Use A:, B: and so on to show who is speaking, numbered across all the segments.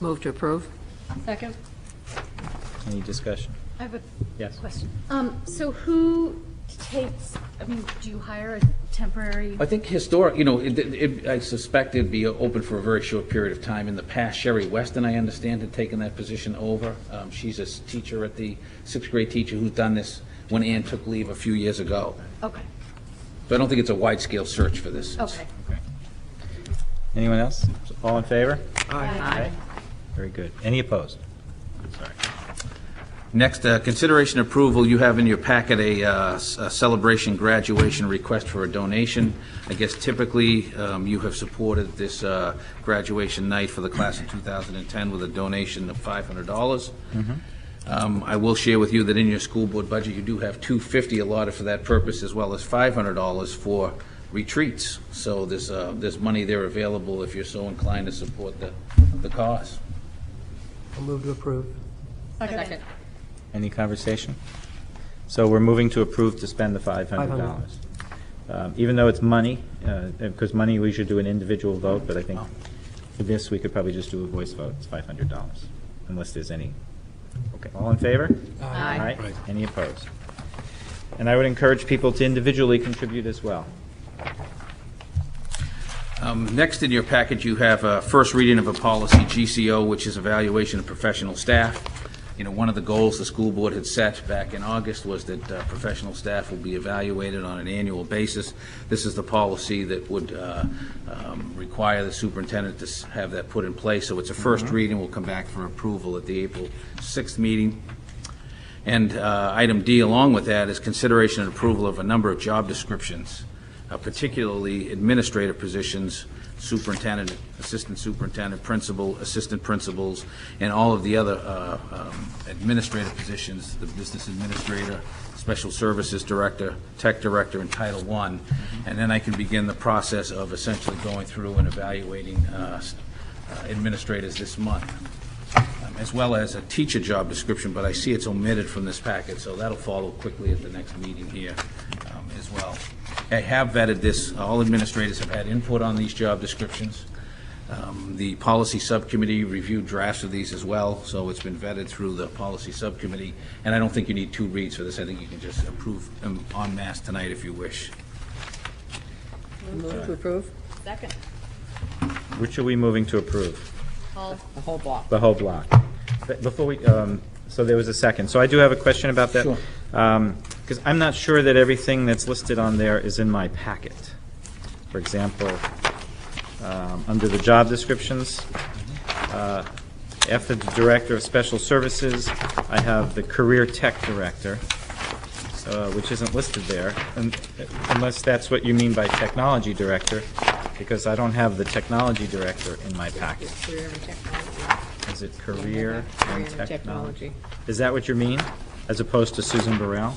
A: Move to approve.
B: Second?
C: Any discussion?
D: I have a
C: Yes.
D: question. Um, so who takes, I mean, do you hire a temporary?
E: I think historic, you know, it, it, I suspect it'd be open for a very short period of time. In the past, Sherry Weston, I understand, had taken that position over. Um, she's a s- teacher at the, sixth grade teacher who's done this when Ann took leave a few years ago.
D: Okay,
E: So I don't think it's a wide-scale search for this. It's-
D: okay.
C: Anyone else? All in favor? Aye. Very good. Any opposed?
E: Next, uh, consideration approval, you have in your packet a uh, s- a celebration graduation request for a donation. I guess typically, um, you have supported this uh, graduation night for the class of 2010 with a donation of $500. Um, I will share with you that in your school board budget, you do have 250 allotted for that purpose, as well as $500 for retreats. So there's, uh, there's money there available if you're so inclined to support the the cause.
F: I'll move to approve.
B: Second.
C: Any conversation? So we're moving to approve to spend the $500. Um, Even though it's money, uh, because money, we should do an individual vote, but I think for this, we could probably just do a voice vote. It's $500, unless there's any. Okay, all in favor? Aye. Any opposed? And I would encourage people to individually contribute as well.
E: Um, Next in your package, you have a first reading of a policy, GCO, which is evaluation of professional staff. You know, one of the goals the school board had set back in August was that uh, professional staff will be evaluated on an annual basis. This is the policy that would uh, um, require the superintendent to s- have that put in place. So it's a first reading, we'll come back for approval at the April 6th meeting. And uh, item D, along with that, is consideration and approval of a number of job descriptions, uh, particularly administrative positions, superintendent, assistant superintendent, principal, assistant principals, and all of the other uh, um, administrative positions, the business administrator, special services director, tech director, and Title I. And then I can begin the process of essentially going through and evaluating uh, s- uh, administrators this month um, as well as a teacher job description, but I see it's omitted from this packet, so that'll follow quickly at the next meeting here um, as well. I have vetted this, all administrators have had input on these job descriptions. Um, The policy subcommittee reviewed drafts of these as well, so it's been vetted through the policy subcommittee, and I don't think you need two reads for this, I think you can just approve them en masse tonight if you wish.
A: Move to approve.
B: Second.
C: Which are we moving to approve?
A: The whole block.
C: The whole block. But Before we, um, so there was a second. So I do have a question about that.
E: Sure.
C: Because I'm not sure that everything that's listed on there is in my packet. For example, um, under the job descriptions, uh, after the Director of Special Services, I have the Career Tech Director, uh, which isn't listed there, un- unless that's what you mean by Technology Director, because I don't have the Technology Director in my packet.
A: Career and technology.
C: Is it career and
A: Career and
C: technology?
A: technology.
C: Is that what you mean, as opposed to Susan Burrell?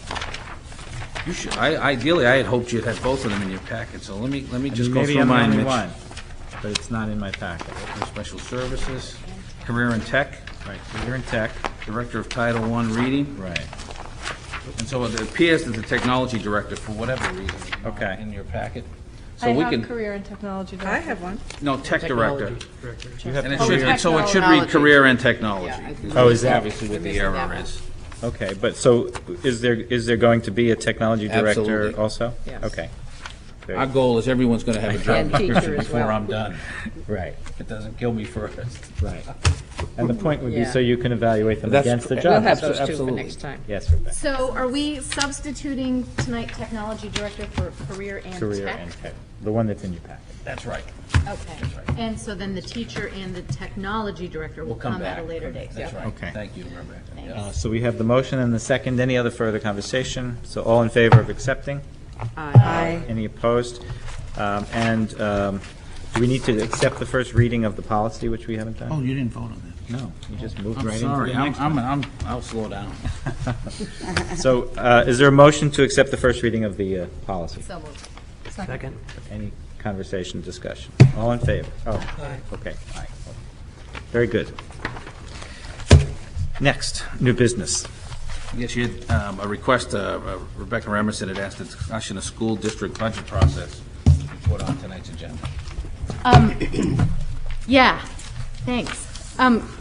E: You should, I- ideally, I had hoped you'd have both of them in your packet, so let me, let me just go
C: Maybe
E: through
C: I'm the
E: mine,
C: only
E: Mitch.
C: one, But it's not in my packet.
E: For Special services, career and tech,
C: Right, career and tech,
E: Director of Title I Reading,
C: right.
E: and so it appears that the technology director, for whatever reason, is not
C: Okay.
E: in your packet. So
D: I
E: we
D: have
E: can,
D: career and technology.
A: I have one.
E: no, tech director.
C: Do you have
E: And it
C: career-
E: should, and so it should read
A: Technology.
E: career and technology.
A: Yeah, I think-
C: Oh, is that-
E: Obviously what the
A: Missing that
E: error
A: one.
E: is.
C: Okay, but so, is there, is there going to be a technology
E: Absolutely.
C: director also?
A: Yes.
C: Okay,
E: Our goal is everyone's going to have a job
A: And teacher
E: description
A: as
E: before
A: well.
E: I'm done.
C: right,
E: If It doesn't kill me first.
C: right. And the point would be
A: Yeah.
C: so you can evaluate them
E: That's
C: against the
E: correct.
C: job.
A: We'll have
E: so
A: those two for
E: absolutely.
A: next time.
C: Yes, Rebecca.
D: So are we substituting tonight technology director for career and tech?
C: career and tech, the one that's in your packet.
E: That's right.
D: Okay.
E: right.
D: And so then the teacher and the technology director will
E: We'll come
D: come
E: back.
D: at a later date.
E: That's right.
C: Okay.
E: Thank you, Rebecca. Yeah.
C: Uh, So we have the motion and the second. Any other further conversation? So all in favor of accepting?
A: Aye.
C: Any opposed? Um, And um, do we need to accept the first reading of the policy, which we haven't
E: Oh,
C: done?
E: you didn't vote on that. Oh,
C: No, you just moved
E: I'm
C: right into
E: sorry,
C: the
E: I'm,
C: next one.
E: I'm, I'm- I'll slow down.
C: So uh, is there a motion to accept the first reading of the uh, policy?
D: So moved.
F: Second.
C: Any conversation, discussion? All in favor? Oh, okay, aye. Very good. Next, new business.
E: Yes, you had um, a request, uh, Rebecca Remerson had asked a discussion of school district budget process to put on tonight's agenda.
D: Um, yeah, thanks. Um,